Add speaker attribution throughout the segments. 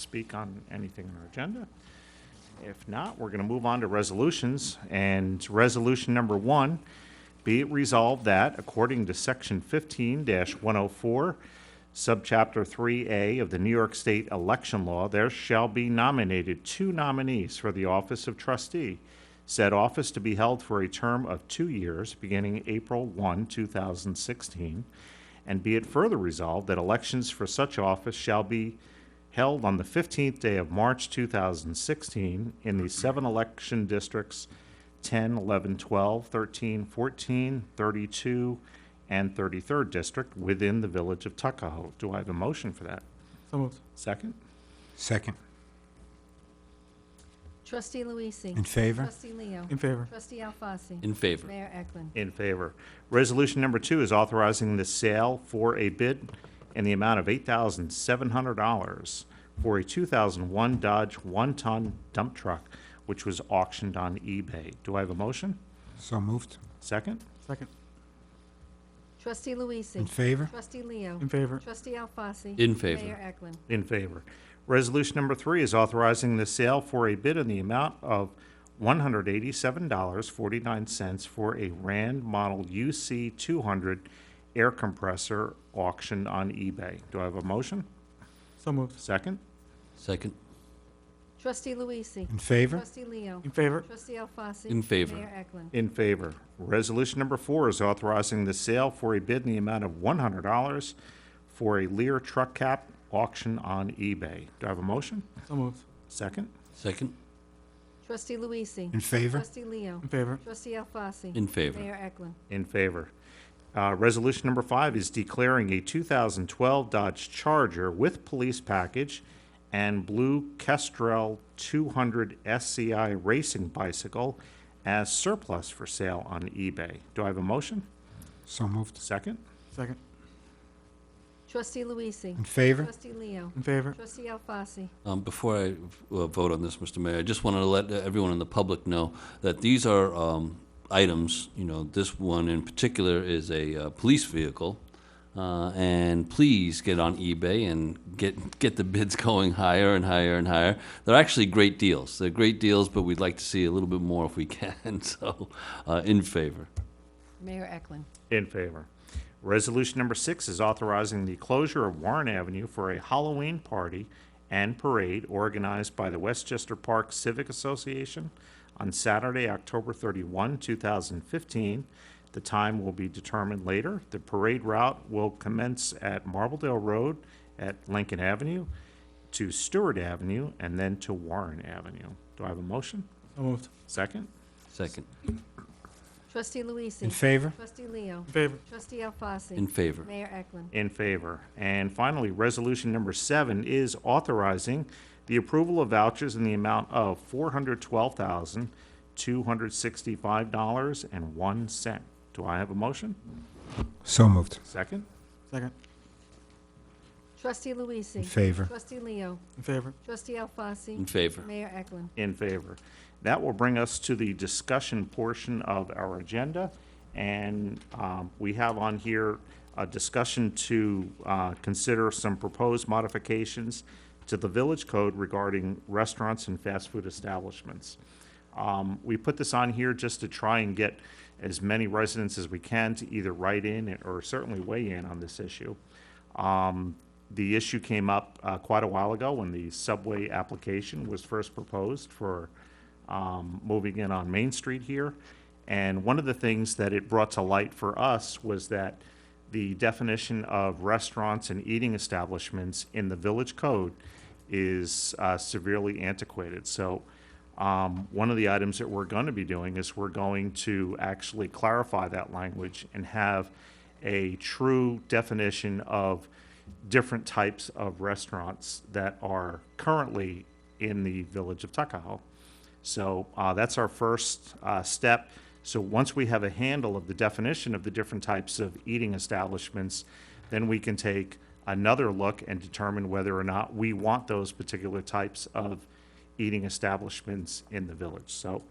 Speaker 1: speak on anything on our agenda? If not, we're going to move on to resolutions. And resolution number one, be it resolved that according to section fifteen one oh four, subchapter three A of the New York State election law, there shall be nominated two nominees for the office of trustee. Said office to be held for a term of two years, beginning April one, two thousand sixteen. And be it further resolved that elections for such office shall be held on the 15th day of March 2016 in the seven election districts 10, 11, 12, 13, 14, 32, and 33rd District within the Village of Tuckahoe. Do I have a motion for that?
Speaker 2: So moved.
Speaker 1: Second?
Speaker 3: Second.
Speaker 4: Trustee Luisee.
Speaker 3: In favor?
Speaker 4: Trustee Leo.
Speaker 2: In favor.
Speaker 4: Trustee Alfasi.
Speaker 5: In favor.
Speaker 4: Mayor Eklund.
Speaker 1: In favor. Resolution number two is authorizing the sale for a bid in the amount of $8,700 for a 2001 Dodge one-ton dump truck, which was auctioned on eBay. Do I have a motion?
Speaker 3: So moved.
Speaker 1: Second?
Speaker 2: Second.
Speaker 4: Trustee
Speaker 3: In
Speaker 4: Luisee.
Speaker 3: favor?
Speaker 4: Trustee Leo.
Speaker 2: In favor.
Speaker 4: Trustee Alfasi.
Speaker 5: In favor.
Speaker 4: Mayor Eklund.
Speaker 1: In favor. Resolution number three is authorizing the sale for a bid in the amount of $187.49 for a Rand Model UC 200 air compressor auction on eBay. Do I have a motion?
Speaker 2: So moved.
Speaker 1: Second?
Speaker 5: Second.
Speaker 4: Trustee Luisee.
Speaker 3: In favor?
Speaker 4: Trustee Leo.
Speaker 2: In favor.
Speaker 4: Trustee Alfasi.
Speaker 5: In favor.
Speaker 4: Mayor Eklund.
Speaker 1: In favor. Resolution number four is authorizing the sale for a bid in the amount of $100 for a Lear truck cap auction on eBay. Do I have a motion?
Speaker 2: So moved.
Speaker 1: Second?
Speaker 5: Second.
Speaker 4: Trustee Luisee.
Speaker 3: In favor?
Speaker 4: Trustee Leo.
Speaker 2: In favor.
Speaker 4: Trustee Alfasi.
Speaker 5: In favor.
Speaker 4: Mayor Eklund.
Speaker 1: In favor. Uh, Resolution number five is declaring a 2012 Dodge Charger with police package and blue Kestrel 200 SCI racing bicycle as surplus for sale on eBay. Do I have a motion?
Speaker 3: So moved.
Speaker 1: Second?
Speaker 2: Second.
Speaker 4: Trustee Luisee.
Speaker 3: In favor?
Speaker 4: Trustee Leo.
Speaker 2: In favor.
Speaker 4: Trustee Alfasi.
Speaker 5: Um, Before I uh, vote on this, Mr. Mayor, I just wanted to let everyone in the public know that these are um, items, you know, this one in particular is a uh, police vehicle. Uh, And please get on eBay and get, get the bids going higher and higher and higher. They're actually great deals. They're great deals, but we'd like to see a little bit more if we can, so uh, in favor.
Speaker 4: Mayor Eklund.
Speaker 1: In favor. Resolution number six is authorizing the closure of Warren Avenue for a Halloween party and parade organized by the Westchester Park Civic Association on Saturday, October 31, 2015. The time will be determined later. The parade route will commence at Marbledale Road at Lincoln Avenue to Stewart Avenue and then to Warren Avenue. Do I have a motion?
Speaker 2: So moved.
Speaker 1: Second?
Speaker 5: Second.
Speaker 4: Trustee Luisee.
Speaker 3: In favor?
Speaker 4: Trustee Leo.
Speaker 2: In favor.
Speaker 4: Trustee Alfasi.
Speaker 5: In favor.
Speaker 4: Mayor Eklund.
Speaker 1: In favor. And finally, resolution number seven is authorizing the approval of vouchers in the amount of four hundred twelve thousand, two hundred sixty-five dollars and one cent. Do I have a motion?
Speaker 3: So moved.
Speaker 1: Second?
Speaker 2: Second.
Speaker 4: Trustee Luisee.
Speaker 3: In favor?
Speaker 4: Trustee Leo.
Speaker 2: In favor.
Speaker 4: Trustee
Speaker 5: In
Speaker 4: Alfasi.
Speaker 5: favor.
Speaker 4: Mayor Eklund.
Speaker 1: In favor. That will bring us to the discussion portion of our agenda. And um, we have on here a discussion to uh, consider some proposed modifications to the village code regarding restaurants and fast food establishments. Um, We put this on here just to try and get as many residents as we can to either write in or certainly weigh in on this issue. Um, The issue came up uh, quite a while ago when the subway application was first proposed for um, moving in on Main Street here. And one of the things that it brought to light for us was that the definition of restaurants and eating establishments in the village code is uh, severely antiquated. So um, one of the items that we're going to be doing is we're going to actually clarify that language and have a true definition of different types of restaurants that are currently in the village of Tuckahoe. So uh, that's our first uh, step. So once we have a handle of the definition of the different types of eating establishments, then we can take another look and determine whether or not we want those particular types of eating establishments in the village. So,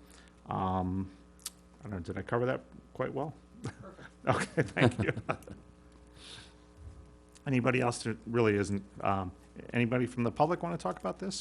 Speaker 1: um, I don't know, did I cover that quite well? Okay, thank you. Anybody else that really isn't um, Anybody from the public want to talk about this?